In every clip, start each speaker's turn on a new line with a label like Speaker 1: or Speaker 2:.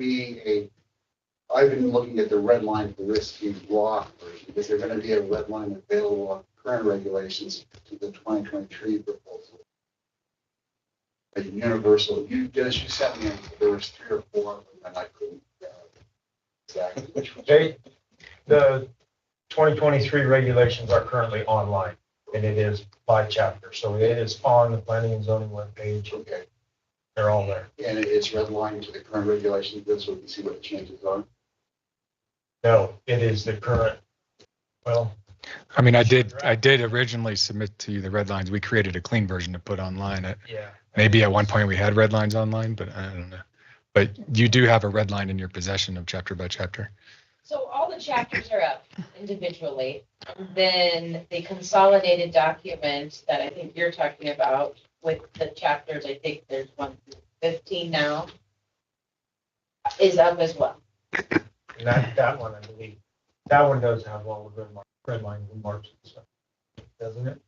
Speaker 1: be a, I've been looking at the red line for risky rock version. Is there gonna be a red line available on current regulations to the twenty twenty-three proposal? A universal, you, Dennis, you sent me, there was three or four, and I couldn't, uh, exactly which one.
Speaker 2: They, the twenty twenty-three regulations are currently online, and it is by chapter, so it is on the planning and zoning webpage,
Speaker 1: Okay,
Speaker 2: they're all there.
Speaker 1: and it's redlined to the current regulations, this we can see what the changes are.
Speaker 2: No, it is the current, well,
Speaker 3: I mean, I did, I did originally submit to you the red lines. We created a clean version to put online. Uh,
Speaker 2: yeah.
Speaker 3: Maybe at one point we had red lines online, but I don't know. But you do have a red line in your possession of chapter by chapter.
Speaker 4: So all the chapters are up individually, and then the consolidated document that I think you're talking about with the chapters, I think there's one through fifteen now, is up as well.
Speaker 2: And that, that one, I believe, that one does have all the red mark, red lines and marks and stuff, doesn't it?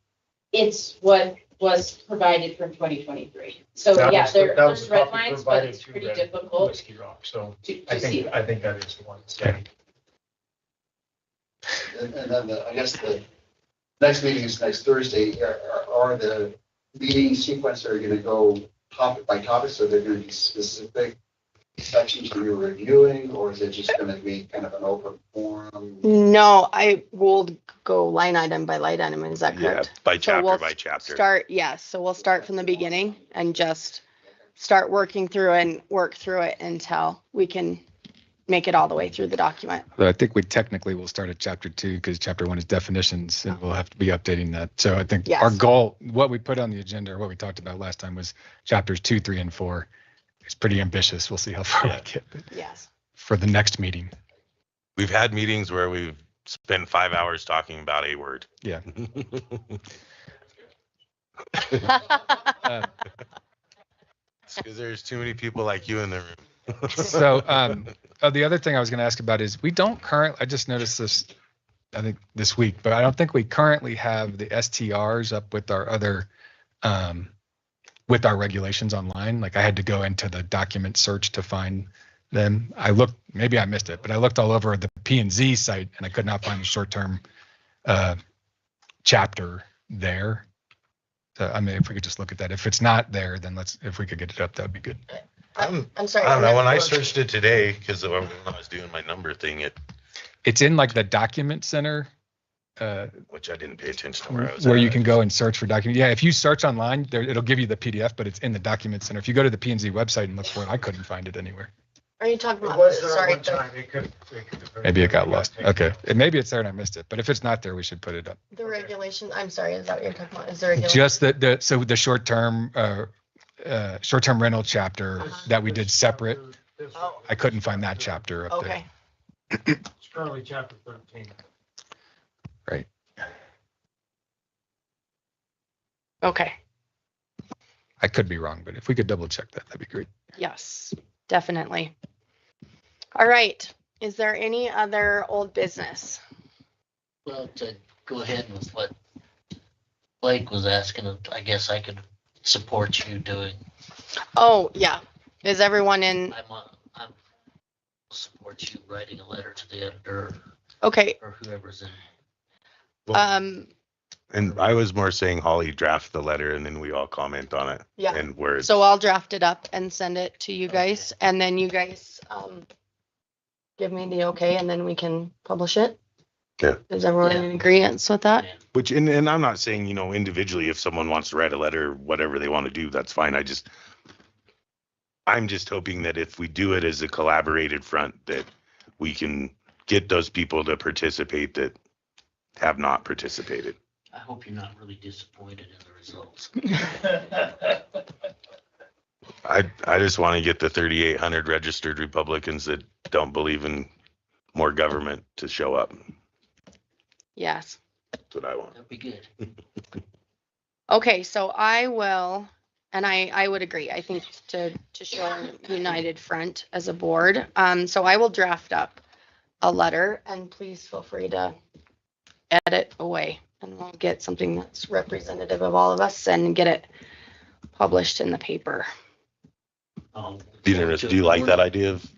Speaker 4: It's what was provided from twenty twenty-three. So
Speaker 2: That
Speaker 4: yeah,
Speaker 2: was the-
Speaker 4: there,
Speaker 2: that was
Speaker 4: there's
Speaker 2: the
Speaker 4: red
Speaker 2: copy
Speaker 4: lines, but
Speaker 2: provided
Speaker 4: it's
Speaker 2: to
Speaker 4: pretty
Speaker 2: Red-
Speaker 4: difficult
Speaker 2: Whiskey Rock, so
Speaker 4: to,
Speaker 2: I
Speaker 4: to see.
Speaker 2: think, I think that is the one. that's there.
Speaker 1: And and then the, I guess the next meeting is next Thursday. Are, are- are the meeting sequence are gonna go topic by topic? So they're gonna be specific sections that you're reviewing, or is it just gonna be kind of an open forum?
Speaker 5: No, I will go line item by line item. Is that
Speaker 6: Yeah,
Speaker 5: correct?
Speaker 6: by
Speaker 5: So we'll
Speaker 6: chapter, by chapter.
Speaker 5: Start, yes. So we'll start from the beginning and just start working through and work through it until we can make it all the way through the document.
Speaker 3: But I think we technically will start at chapter two because chapter one is definitions and we'll have to be updating that. So I think our
Speaker 5: Yes.
Speaker 3: goal, what we put on the agenda or what we talked about last time was chapters two, three, and four. It's pretty ambitious. We'll see how far we get
Speaker 5: Yes.
Speaker 3: for the next meeting.
Speaker 6: We've had meetings where we've spent five hours talking about a word.
Speaker 3: Yeah. Uh,
Speaker 6: Because there's too many people like you in the room.
Speaker 3: So, um, uh, the other thing I was going to ask about is we don't current, I just noticed this, I think this week, but I don't think we currently have the STRs up with our other, um, with our regulations online. Like I had to go into the document search to find them. I looked, maybe I missed it, but I looked all over the P and Z site and I could not find the short-term, uh, chapter there. So, I mean, if we could just look at that, if it's not there, then let's, if we could get it up, that'd be good.
Speaker 6: I'm-
Speaker 5: I'm sorry.
Speaker 6: I don't know, when I searched it today, because when I was doing my number thing, it,
Speaker 3: It's in like the document center, uh,
Speaker 6: which I didn't pay attention to where I was.
Speaker 3: where
Speaker 6: at,
Speaker 3: you
Speaker 6: I
Speaker 3: can
Speaker 6: just-
Speaker 3: go and search for document. Yeah, if you search online, there, it'll give you the PDF, but it's in the document center. If you go to the P and Z website and look for it, I couldn't find it anywhere.
Speaker 5: Are you talking
Speaker 2: It
Speaker 5: about,
Speaker 2: was there at
Speaker 5: sorry,
Speaker 2: one time, it could. could-
Speaker 3: Maybe it got lost.
Speaker 2: taken
Speaker 3: Okay,
Speaker 2: out.
Speaker 3: and maybe it's there and I missed it, but if it's not there, we should put it up.
Speaker 5: the regulation, I'm sorry, is that what you're talking about? Is there a?
Speaker 3: Just the, the, so the short-term, uh, uh, short-term rental chapter
Speaker 5: Uh-huh.
Speaker 3: that we did separate,
Speaker 2: This-
Speaker 5: Oh.
Speaker 3: I couldn't find that chapter up there.
Speaker 5: Okay.
Speaker 2: It's currently chapter thirteen.
Speaker 5: Okay.
Speaker 3: I could be wrong, but if we could double check that, that'd be great.
Speaker 5: Yes, definitely. All right. Is there any other old business?
Speaker 7: Well, to go ahead with what Blake was asking, I guess I could support you doing,
Speaker 5: Oh, yeah. Is everyone in?
Speaker 7: I'm, uh, I'm, support you writing a letter to the editor
Speaker 5: Okay.
Speaker 7: or whoever's in.
Speaker 6: Well,
Speaker 5: Um,
Speaker 6: And I was more saying Holly draft the letter and then we all comment on it
Speaker 5: yeah.
Speaker 6: and words.
Speaker 5: So I'll draft it up and send it to you guys and then you guys, um, give me the okay and then we can publish it.
Speaker 6: Yeah.
Speaker 5: Is everyone in agreement with that?
Speaker 6: Which, and, and I'm not saying, you know, individually, if someone wants to write a letter, whatever they want to do, that's fine. I just, I'm just hoping that if we do it as a collaborated front, that we can get those people to participate that have not participated.
Speaker 7: I hope you're not really disappointed in the results.
Speaker 6: I, I just want to get the 3,800 registered Republicans that don't believe in more government to show up.
Speaker 5: Yes.
Speaker 6: That's what I want.
Speaker 7: That'd be good.
Speaker 5: Okay, so I will, and I, I would agree, I think to, to show our united front as a board. Um, so I will draft up a letter and please feel free to edit away. And we'll get something that's representative of all of us and get it published in the paper.
Speaker 7: Um,
Speaker 6: Do you, do you like that idea of